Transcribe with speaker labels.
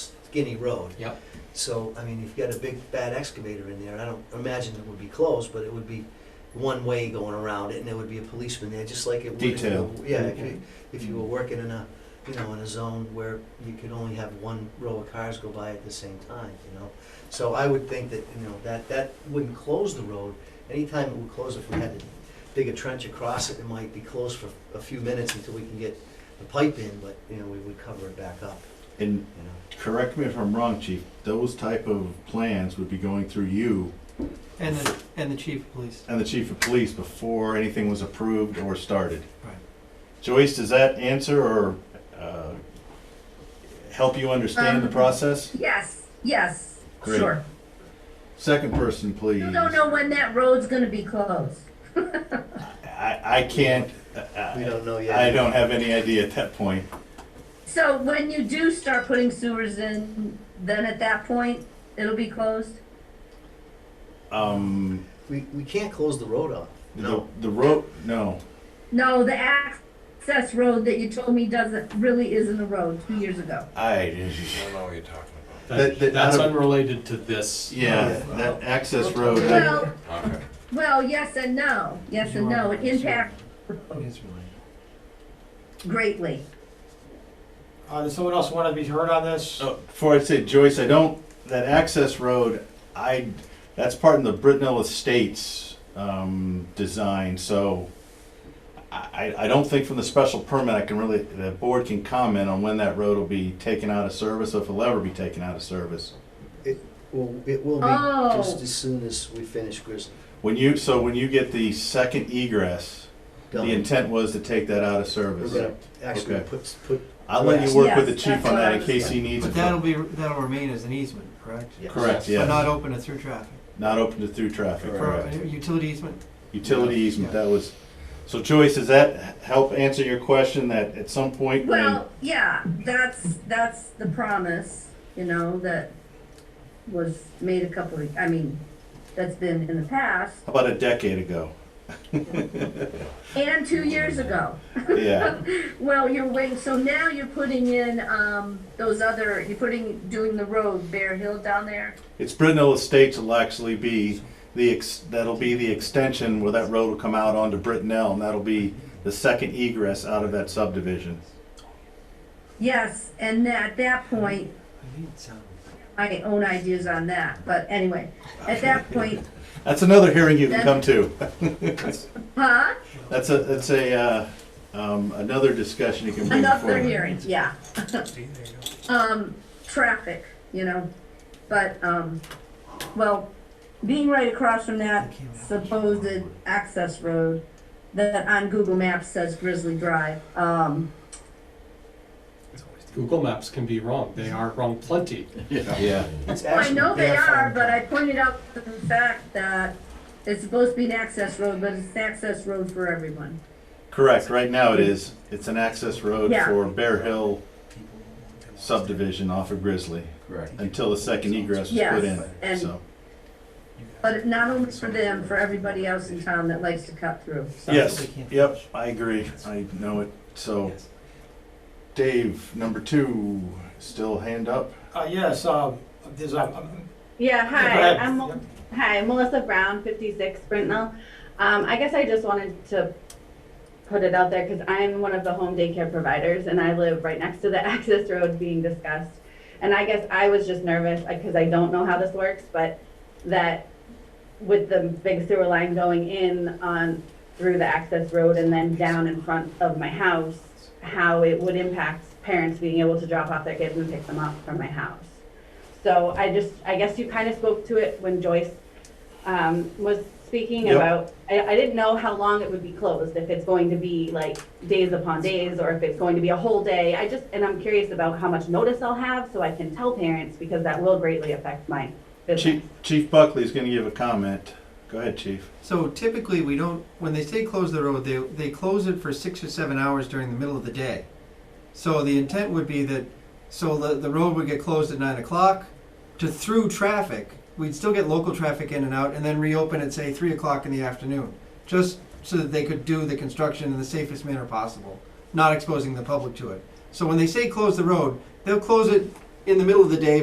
Speaker 1: skinny road.
Speaker 2: Yep.
Speaker 1: So, I mean, you've got a big bad excavator in there, I don't imagine it would be closed, but it would be one way going around it, and there would be a policeman there, just like it would. if you
Speaker 3: Detail.
Speaker 1: were- Yeah, if you, if you were working in a, you know, in a zone where you could only have one row of cars go by at the same time, you know? So I would think that, you know, that, that wouldn't close the road, anytime it would close if we had to dig a trench across it, it might be closed for a few minutes until we can get the pipe in, but, you know, we would cover it back up,
Speaker 3: And
Speaker 1: you know?
Speaker 3: correct me if I'm wrong, chief, those type of plans would be going through you
Speaker 4: And the, and the chief of police.
Speaker 3: and the chief of police before anything was approved or started.
Speaker 4: Right.
Speaker 3: Joyce, does that answer or uh, help you understand the
Speaker 5: Um,
Speaker 3: process?
Speaker 5: Yes, yes,
Speaker 3: Great.
Speaker 5: sure.
Speaker 3: Second person, please.
Speaker 5: You don't know when that road's gonna be closed.
Speaker 3: I, I can't,
Speaker 1: We
Speaker 3: I
Speaker 1: don't know yet.
Speaker 3: I don't have any idea at that point.
Speaker 5: So when you do start putting sewers in, then at that point, it'll be closed?
Speaker 3: Um,
Speaker 1: We, we can't close the road off.
Speaker 3: the, the road, no,
Speaker 5: No, the access road that you told me doesn't, really isn't a road two years ago.
Speaker 3: I,
Speaker 6: I don't know what you're talking about.
Speaker 3: That-
Speaker 2: That,
Speaker 3: that-
Speaker 2: that's
Speaker 3: out of-
Speaker 2: unrelated to this.
Speaker 3: yeah, that access road. I-
Speaker 5: Well,
Speaker 6: Okay.
Speaker 5: well, yes and no, yes and no, it impacts
Speaker 4: It is related.
Speaker 5: greatly.
Speaker 7: Uh, does someone else want to be heard on this?
Speaker 3: Oh, before I say Joyce, I don't, that access road, I, that's part of the Brittenell Estates, um, design, so I, I I don't think from the special permit, I can really, the board can comment on when that road will be taken out of service, or if it'll ever be taken out of service.
Speaker 1: Well, it will be
Speaker 5: Oh.
Speaker 1: just as soon as we finish Grizzly.
Speaker 3: When you, so when you get the second egress, the
Speaker 1: Done.
Speaker 3: intent was to take that out
Speaker 1: We're
Speaker 3: of service.
Speaker 1: gonna actually
Speaker 3: Okay.
Speaker 1: put, put,
Speaker 3: I'll let you work with the
Speaker 5: Yes,
Speaker 3: chief on
Speaker 5: that's
Speaker 3: that
Speaker 5: what
Speaker 3: in case he needs it.
Speaker 4: But that'll be, that'll remain as an easement, correct?
Speaker 1: yes.
Speaker 3: Correct,
Speaker 4: But not
Speaker 3: yeah,
Speaker 4: open to through traffic.
Speaker 3: not open to through traffic,
Speaker 4: For
Speaker 3: correct.
Speaker 4: a utility easement,
Speaker 3: Utility easement,
Speaker 4: Yeah.
Speaker 3: that was, so Joyce, does that h- help answer your question that at some point when,
Speaker 5: Well, yeah, that's, that's the promise, you know, that was made a couple of, I mean, that's been in the past,
Speaker 3: how about a decade ago?
Speaker 5: and two years ago.
Speaker 3: Yeah,
Speaker 5: Well, you're waiting, so now you're putting in, um, those other, you're putting, doing the road, Bear Hill down there?
Speaker 3: it's Brittenell Estates will actually be the, ex that'll be the extension where that road will come out onto Brittenell and that'll be the second egress out of that subdivision.
Speaker 5: Yes, and at that point,
Speaker 4: I need some.
Speaker 5: my own ideas on that, but anyway, at that point,
Speaker 3: That's another hearing you can come to.
Speaker 5: huh?
Speaker 3: That's a, that's a, uh, um, another discussion you can bring forward.
Speaker 5: Another hearing, yeah.
Speaker 4: See, there you go.
Speaker 5: um, traffic, you know, but, um, well, being right across from that supposed access road that on Google Maps says Grizzly Drive, um,
Speaker 2: Google Maps can be wrong. They are wrong plenty.
Speaker 3: Yeah,
Speaker 1: It's
Speaker 5: well, I
Speaker 1: actually
Speaker 5: know they
Speaker 1: their
Speaker 5: are,
Speaker 1: farm.
Speaker 5: but I pointed out the fact that it's supposed to be an access road, but it's an access road for everyone.
Speaker 3: correct, right now it is, it's an access road
Speaker 5: Yeah.
Speaker 3: for Bear Hill subdivision off of Grizzly.
Speaker 6: Correct.
Speaker 3: until the second egress was put
Speaker 5: Yes,
Speaker 3: in,
Speaker 5: and,
Speaker 3: so.
Speaker 5: but it- not only for them, for everybody else in town that likes to cut through. so.
Speaker 3: Yes, yep, I agree, I know it, so. Dave, number two, still hand up?
Speaker 7: Uh, yes, um, there's, a- um,
Speaker 8: Yeah,
Speaker 7: go ahead.
Speaker 8: hi, I'm, Mel- hi, Melissa Brown, fifty-six Brittenell. Um, I guess I just wanted to put it out there, cause I'm one of the home daycare providers and I live right next to the access road being discussed. And I guess I was just nervous, uh, cause I don't know how this works, but that with the big sewer line going in on, through the access road and then down in front of my house, how it would impact parents being able to drop off their kids and pick them up from my house. So I just, I guess you kind of spoke to it when Joyce um, was speaking
Speaker 3: Yep.
Speaker 8: about, I, I didn't know how long it would be closed, if it's going to be like days upon days, or if it's going to be a whole day. I just, and I'm curious about how much notice I'll have, so I can tell parents, because that will greatly affect my business.
Speaker 3: Chief, Chief Buckley's gonna give a comment, go ahead, chief.
Speaker 4: So typically, we don't, when they say close the road, they, they close it for six or seven hours during the middle of the day. So the intent would be that, so the, the road would get closed at nine o'clock to through traffic. We'd still get local traffic in and out and then reopen at, say, three o'clock in the afternoon, just so that they could do the construction in the safest manner possible, not exposing the public to it. So when they say close the road, they'll close it in the middle of the day